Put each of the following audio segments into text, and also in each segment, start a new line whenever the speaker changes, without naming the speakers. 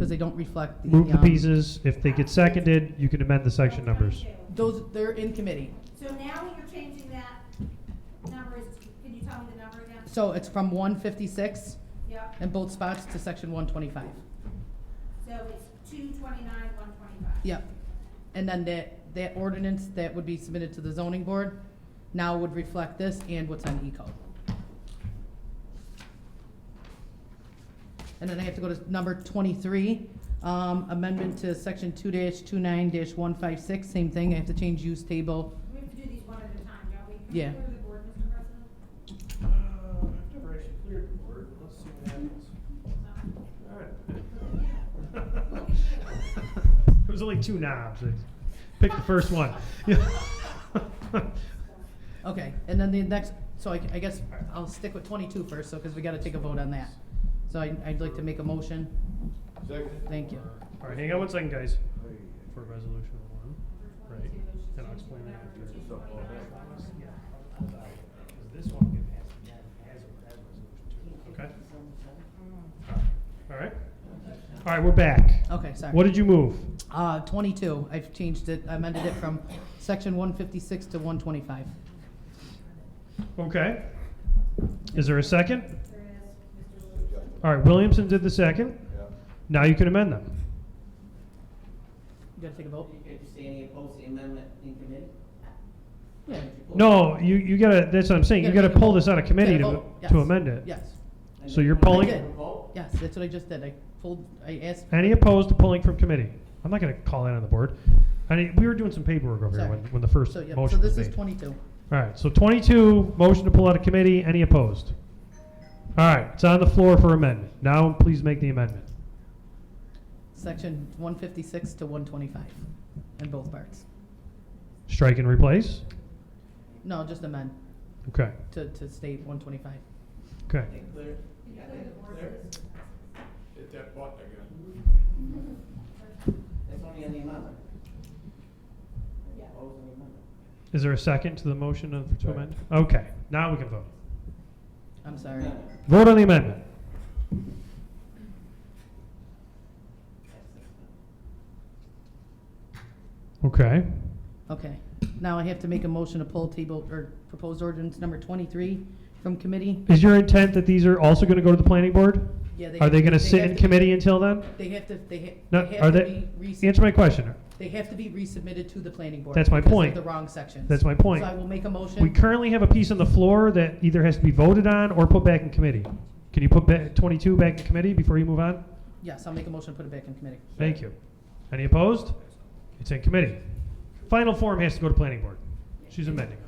they don't reflect the.
Move the
um,
pieces. If they get seconded, you can amend the section numbers.
Those, they're in committee.
So now when you're changing that number, is, can you tell me the number again?
So it's from 156
Yep,
in both spots to section 125.
so it's two twenty-nine, one twenty-five.
Yep. And then that, that ordinance that would be submitted to the zoning board now would reflect this and what's on E code. And then I have to go to number 23, um, amendment to section 2-29-156, same thing, I have to change use table.
We have to do these one at a time, don't we? Can
Yeah.
we go to the board, Mr. President?
Uh, I've never actually cleared the board. Let's see what happens. All right.
It was only two knobs. Pick the first one.
Okay, and then the next, so I, I guess I'll stick with 22 first, so, because we gotta take a vote on that. So I, I'd like to make a motion.
Second.
Thank you.
All right, hang on one second, guys. For resolution one, right? And I'll explain that after. This one Okay. All right. All right, we're back.
Okay, sorry.
What did you move?
Uh, 22, I've changed it, I amended it from section 156 to 125.
Okay. Is there a second?
There is, Mr. Lewis.
All right, Williamson did the second. Now you can amend them.
You gotta take a vote?
Did you say any opposed to the amendment in committee?
Yeah.
No, you, you gotta, that's what I'm saying, you
Gotta
gotta
take a
pull
vote.
this out of committee
Gotta
to,
vote, yes.
to amend it.
Yes,
And
So
you
you're
wanna
pulling-
take a vote?
yes, that's what I just did, I pulled, I asked,
Any opposed to pulling from committee? I'm not gonna call that on the board. I mean, we were doing some paperwork over here
Sorry.
when, when the first
so, yeah,
motion
so
was
this is
made.
22.
All right, so twenty-two, motion to pull out of committee, any opposed? All right, it's on the floor for amendment. Now, please make the amendment.
Section 156 to 125, in both parts.
Strike and replace?
No, just amend
Okay,
to, to state 125.
okay.
Is that clear? You got that clear?
Hit that button again.
That's only on the amendment. Opposed on the amendment.
Is there a second to the motion of, to amend? Okay, now we can vote.
I'm sorry.
Amendment.
Vote on the amendment.
That's it.
Okay,
Okay, now I have to make a motion to pull table, or proposed ordinance number 23 from committee.
is your intent that these are also gonna go to the planning board?
Yeah,
Are
have
they
to-
gonna sit
have
in
to-
committee until then?
They have to, they ha-
No,
they
are
have to
they-
be resubmitted.
Answer my question.
They have to be resubmitted to the planning board.
That's my
because of
point.
the wrong sections.
That's my point.
So I will make a motion.
We currently have a piece on the floor that either has to be voted on or put back in committee. Can you put ba- 22 back in committee before you move on?
Yes, I'll make a motion, to put it back in committee.
Thank you. Any opposed? It's in committee. Final form has to go to planning board. She's amending.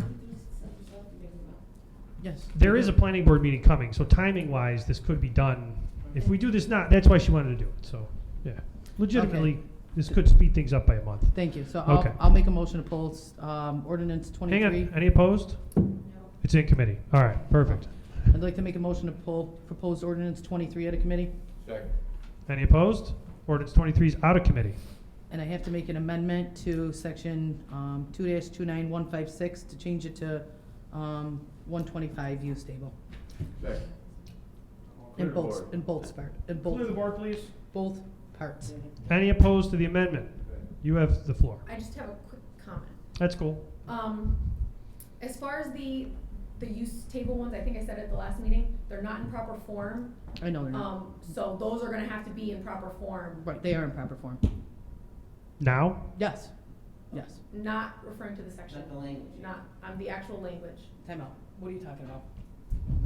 Yes.
There is a planning board meeting coming, so timing wise, this could be done. If we do this now, that's why she wanted to do it, so, yeah. Legitimately, this could speed things up by a month.
Thank you. So
Okay.
I'll, I'll make a motion to pull, um, ordinance
Hang
twenty-three.
on, any opposed? It's in committee. All right, perfect.
I'd like to make a motion to pull proposed ordinance twenty-three out of committee,
Second.
Any opposed? Ordinance 23 is out of committee.
and I have to make an amendment to section, um, two two-nine-one-five-six to change it to, um, one-twenty-five use table.
Second. Clear
In
the
both,
board.
in both part, in
Clear the
both,
board, please.
both parts.
Any opposed to the amendment? You have the floor.
I just have a quick comment.
That's cool.
Um, as far as the, the use table ones, I think I said at the last meeting, they're not in proper form.
I know they're not,
Um, so those are gonna have to be in proper form,
right, they are in proper form.
Now?
Yes, yes.
not referring to the section,
Not the language.
not, um, the actual language.
Time out. What are you talking about?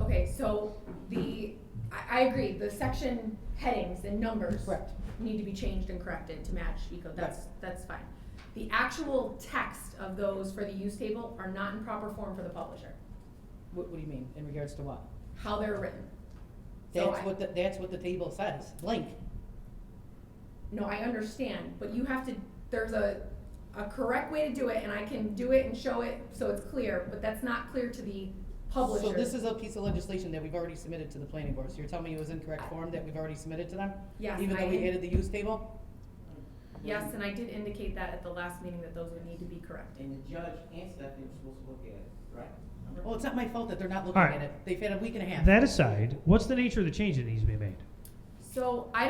Okay, so the, I, I agree, the section headings and numbers.
Correct.
Need to be changed and corrected to match ECO, that's, that's fine. The actual text of those for the use table are not in proper form for the publisher,
What, what do you mean, in regards to what?
how they're written. So
That's
I-
what, the- that's what the table says, blank.
No, I understand, but you have to, there's a, a correct way to do it, and I can do it and show it so it's clear, but that's not clear to the publisher.
So this is a piece of legislation that we've already submitted to the planning board, so you're telling me it was incorrect form that we've already submitted to them?
Yes,
Even though we
I-
added the use table?
Yes, and I did indicate that at the last meeting that those would need to be corrected.
And the judge and Stephanie were supposed to look at it, right? Remember?
Well, it's not my fault that they're not looking
All right.
at it, they've had a week and a half.
That aside, what's the nature of the change that needs to be made?
So I